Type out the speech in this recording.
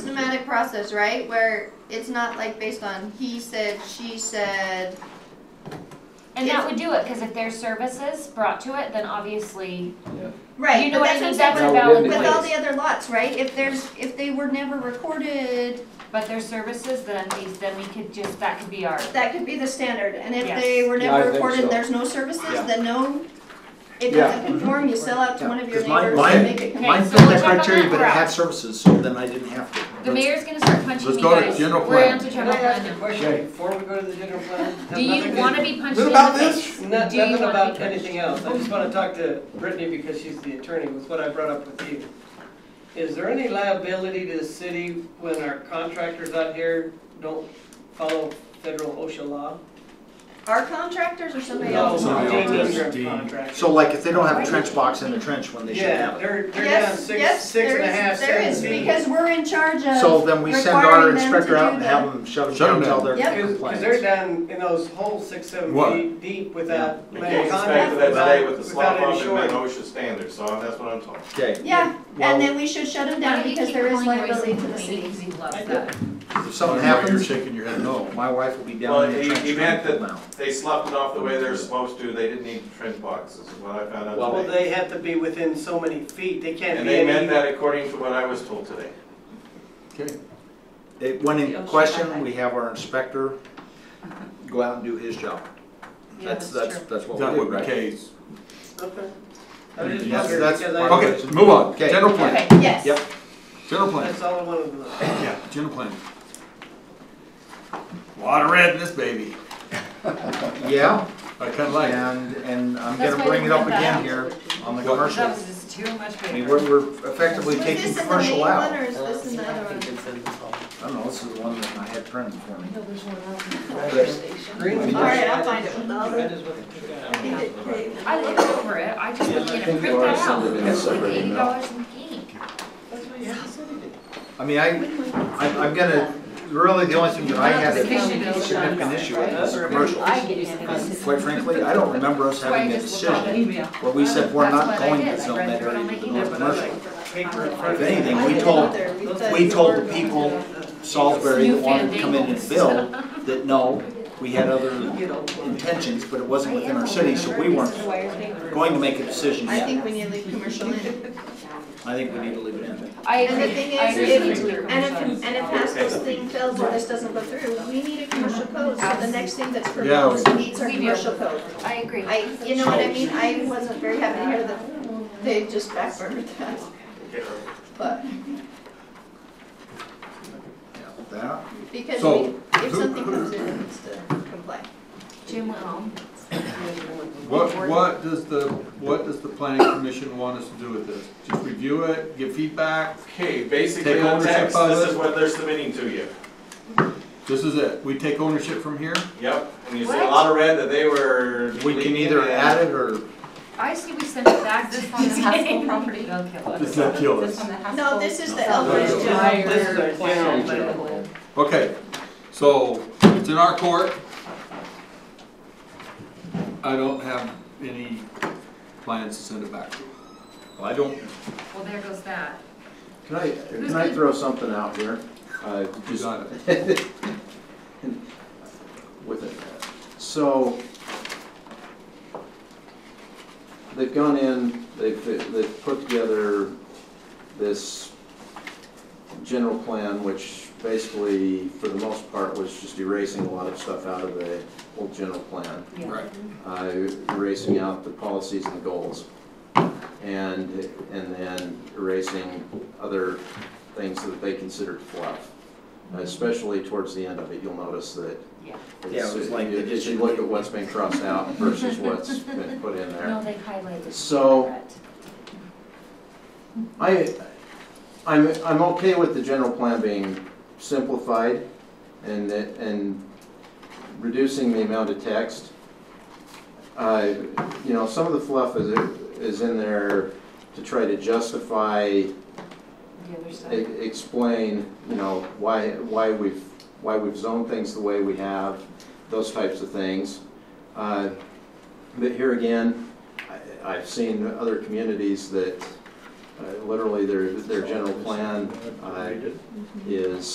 systematic process, right? Where it's not like based on he said, she said. And that would do it, because if there's services brought to it, then obviously, Right, you know but what that's I mean, what's that's a happening No, valid wouldn't with all point. the other lots, right? If there's, if they were never recorded, But there's services, then these, then we could just, that could be ours. that could be the standard. And if Yes. they were Yeah, I never think so. recorded, there's no services, Yeah. then no, it Yeah. doesn't conform, you sell out to Yeah, one of your 'cause mine- neighbors mine- and make it conform. mine- Mine so fit we'll that check on criteria, that but it route. had services, so then I didn't have to. The Let's- mayor's gonna start punching let's me go to guys. general We're plan. on to Can general I ask a plan. Okay. question before we go to the general plan? Has Do you nothing to- wanna be punched in What the about face? this? No- Do you Nothing wanna about be punched? anything else, I just wanna talk to Brittany because she's the attorney, with what I brought up with you. Is there any liability to the city when our contractors out here don't follow federal OSHA law? Our contractors or somebody No, else? Somebody they else's. do their Deed. contractors. So like if they don't have a trench box in the trench when they should Yeah, have it. they're, they're down Yes, six, yes, six there and a half, is, there seven is, feet. because we're in charge of. So then we send our requiring them to inspector out do and the- have them shut Shut them 'em down until down. they're Yep. in Because they're compliance. down in those holes six, seven What? feet deep without We laying can't contact, expect that today with the slop without pump any and shoring. met OSHA standards, so that's what I'm talking. Okay. Yeah, Well- and then we should shut them down because there is liability to the city. He loves I that. If something You're happens, shaking your head no, my wife will be Well, down in the he- trench. he meant trying to that- pull down. They sloughed it off the way they're supposed to, they didn't need trench boxes, is what I found out Well, today. they have to be within so many feet, they can't And be they meant any, that according to what I was told today. It- When in question, we have our inspector go out and do his job. That's, that's, that's what That we do, would be right? case. okay. I was just Yes, wondering, that's because part of I, Okay, move on. Okay. General plan, Okay, Yes. Yep. general plan, that's all I wanted to know. yeah, general plan. Lot of red in this baby. Yeah, I kinda like it. and, and I'm That's gonna why bring they it up went again back. here on the What? commercial. That was I just too much mean, paper. we're, we're effectively Was taking this in the main commercial one out. or is this in the other one? I don't know, this is the one that I had printed for me. Green. All right, I'll find it with the other. I think it- I looked over it, I just was gonna print that out, it was like eighty dollars in ink. I mean, I, I'm, I'm gonna, really the only thing that I had Because that you know it's not significant issue with right. was commercial. I get it. Quite frankly, I don't remember us So I having a just looked at decision it. where we said we're That's not what I going did. to I zone read that through it on area, my the email, north but I was commercial. Paper in front If of anything, we I told, didn't either. We said we told we're the going people to- Salisbury that wanted to come in and build, that no, we had other Get old one. intentions, but it wasn't within our city, so we weren't going to make a decision I yet. think we need to leave commercial in. I think we need to leave it in. I And the agree, thing I is, agree. if, with you. and if, and if Haskell's thing fails or this doesn't go through, we need a commercial code, so the next thing that's proposed meets our We do. commercial code. I agree. I, you know what I mean, I wasn't very happy to hear that they just backburnered that, but, Yeah, That, because So, we, if something comes in, it needs to comply. Jim went home. What, what does the, what does the planning commission want us to do with this? Just review it, give feedback? Okay, basically, Take the ownership text, of this it. is what they're submitting to you. This is it, we take ownership from here? Yep, and you see a What? lot of red that they were. we can either add it or I see we sent it back this This one, the Haskell Tuesday. property. Does that kill This us? one, the Haskell. No, this is the This Elbridge is Drive. just- this is a general plan. Okay, so it's in our court. I don't have any plans to send it back. Well, I don't. Well, there goes that. Can I, can I throw something out here? Uh, You just got it. with it. So, they've gone in, they've, they've put together this general plan, which basically, for the most part, was just erasing a lot of stuff out of the old general plan Right. uh, erasing out the policies and the goals, and, and then erasing other things that they considered fluff. Especially towards the end of it, you'll notice that. Yeah. it's- Yeah, it was like they If you look at what's been crossed out versus what's been put in there. No, they highlighted. So- that. I, I'm, I'm okay with the general plan being simplified and, that- and reducing the amount of text. I, you know, some of the fluff is, is in there to try to justify, The other e- side. explain, you know, why, why we've, why we've zoned things the way we have, those types of things. Uh, But here again, I, I've seen other communities that, Uh, Literally, their, their general plan uh, is